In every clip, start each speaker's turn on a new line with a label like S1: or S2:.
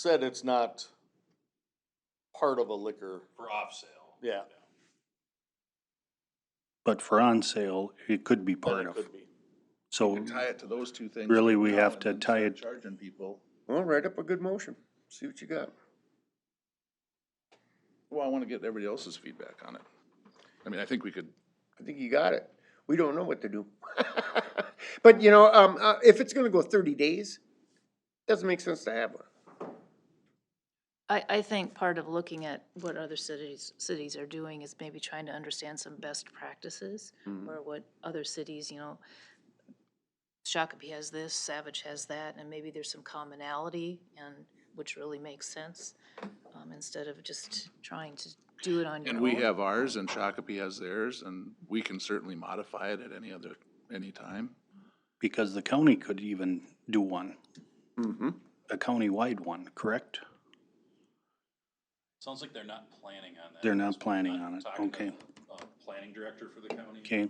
S1: said it's not part of a liquor,
S2: for off sale.
S1: yeah,
S3: But for on sale, it could be
S1: but
S3: part
S1: it
S3: of.
S1: could be.
S3: So
S4: And tie it to those two things.
S3: Really,
S4: right
S3: we
S4: now
S3: have
S4: and
S3: to
S4: then
S3: tie
S4: start
S3: it-
S4: Charging people.
S5: Well, write up a good motion, see what you got.
S4: Well, I want to get everybody else's feedback on it. I mean, I think we could,
S5: I think you got it. We don't know what to do. But, you know, um, uh, if it's gonna go thirty days, doesn't make sense to have one.
S6: I, I think part of looking at what other cities, cities are doing is maybe trying to understand some best practices
S4: Mm-hmm.
S6: or what other cities, you know, Shakopee has this, Savage has that, and maybe there's some commonality and, which really makes sense, um, instead of just trying to do it on your own.
S4: and we have ours and Shakopee has theirs and we can certainly modify it at any other, any time.
S3: because the county could even do one,
S5: Mm-hmm.
S3: a county-wide one, correct?
S2: Sounds like they're not planning on that.
S3: They're not planning on it,
S2: Talking to
S3: okay.
S2: the, uh, Planning director for the county.
S3: Okay.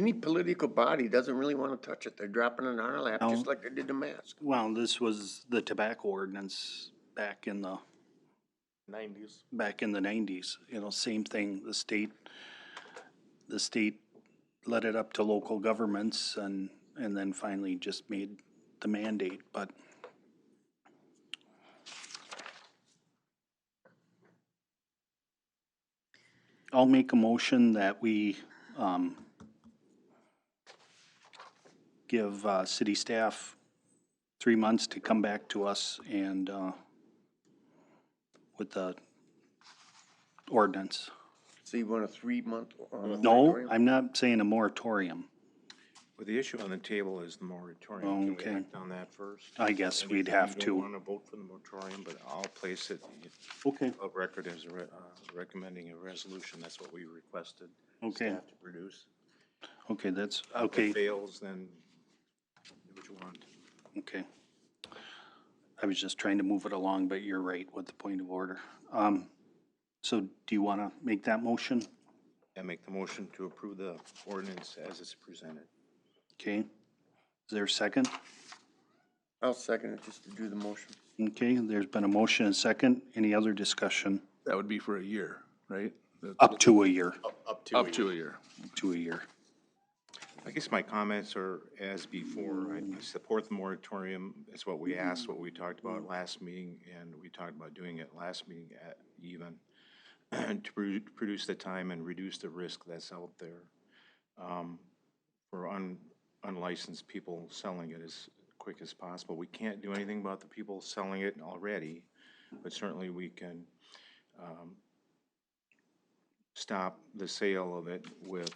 S5: Any political body doesn't really wanna touch it. They're dropping it on our lap, just
S3: No.
S5: like they did the mask.
S3: Well, this was the tobacco ordinance back in the,
S1: Nineties.
S3: back in the nineties, you know, same thing, the state, the state let it up to local governments and, and then finally just made the mandate, but I'll make a motion that we, um, give, uh, city staff three months to come back to us and, uh, with the ordinance.
S5: So you want a three-month? um,
S3: No,
S5: moratorium?
S3: I'm not saying a moratorium.
S7: Well, the issue on the table is the moratorium. Can
S3: Okay.
S7: we act on that first?
S3: I guess
S7: And
S3: we'd
S7: if
S3: have
S7: you
S3: to.
S7: don't want to vote for the moratorium, but I'll place it
S3: Okay.
S7: of record as a re- uh, recommending a resolution. That's what we requested.
S3: Okay,
S7: Staff to produce.
S3: okay, that's,
S7: If it
S3: okay,
S7: fails, then do what you want.
S3: okay. I was just trying to move it along, but you're right with the point of order. Um, so do you want to make that motion?
S7: I make the motion to approve the ordinance as it's presented.
S3: Okay. Is there a second?
S5: I'll second it, just to do the motion.
S3: Okay, there's been a motion and second. Any other discussion?
S4: That would be for a year, right? That-
S3: Up to a year,
S4: Up to a year.
S3: to a year.
S7: I guess my comments are as before. I I support the moratorium. It's what we asked, what we talked about last meeting, and we talked about doing it last meeting at even, to produ- produce the time and reduce the risk that's out there um, for un- unlicensed people selling it as quick as possible. We can't do anything about the people selling it already, but certainly we can um, stop the sale of it with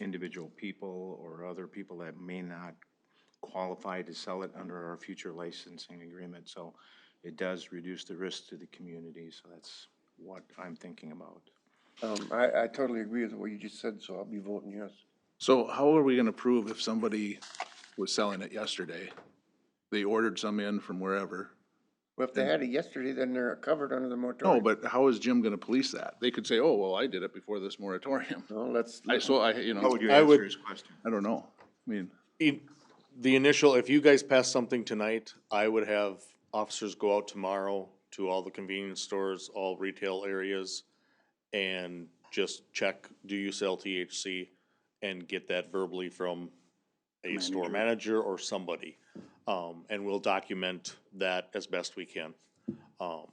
S7: individual people or other people that may not qualify to sell it under our future licensing agreement. So it does reduce the risk to the community, so that's what I'm thinking about.
S5: Um, I, I totally agree with what you just said, so I'll be voting yes.
S4: So how are we gonna prove if somebody was selling it yesterday? They ordered some in from wherever.
S5: Well, if they had it yesterday, then they're covered under the moratorium.
S4: No, but how is Jim gonna police that? They could say, oh, well, I did it before this moratorium.
S5: No, let's,
S4: I, so I, you
S7: How
S4: know,
S7: would you
S1: I would-
S7: answer his question?
S4: I don't know. I mean,
S1: E- The initial, if you guys pass something tonight, I would have officers go out tomorrow to all the convenience stores, all retail areas, and just check, do you sell THC? And get that verbally from a store manager or somebody. Um, and we'll document that as best we can. Um,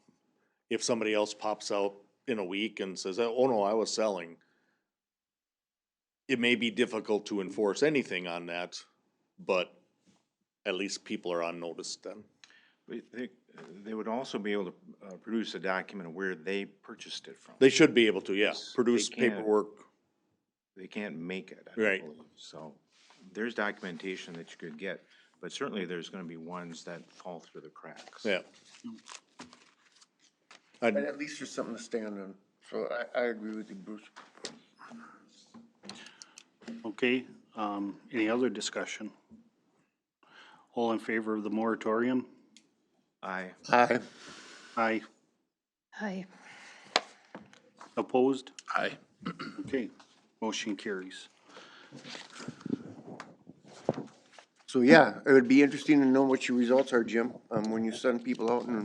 S1: if somebody else pops out in a week and says, oh no, I was selling, it may be difficult to enforce anything on that, but at least people are on notice then.
S7: But They, they would also be able to uh, produce a document of where they purchased it from.
S1: They should be able to, yeah, produce
S7: They can.
S1: paperwork.
S7: They can't make it, I
S1: Right.
S7: don't believe. So there's documentation that you could get, but certainly there's gonna be ones that fall through the cracks.
S1: Yeah.
S5: but
S1: I'd-
S5: at least there's something to stand on, so I, I agree with you, Bruce.
S3: Okay, um, any other discussion? All in favor of the moratorium?
S7: Aye.
S5: Aye.
S3: Aye.
S6: Hi.
S3: Opposed?
S4: I,
S3: Okay, motion carries.
S5: So, yeah, it would be interesting to know what your results are, Jim, um, when you send people out and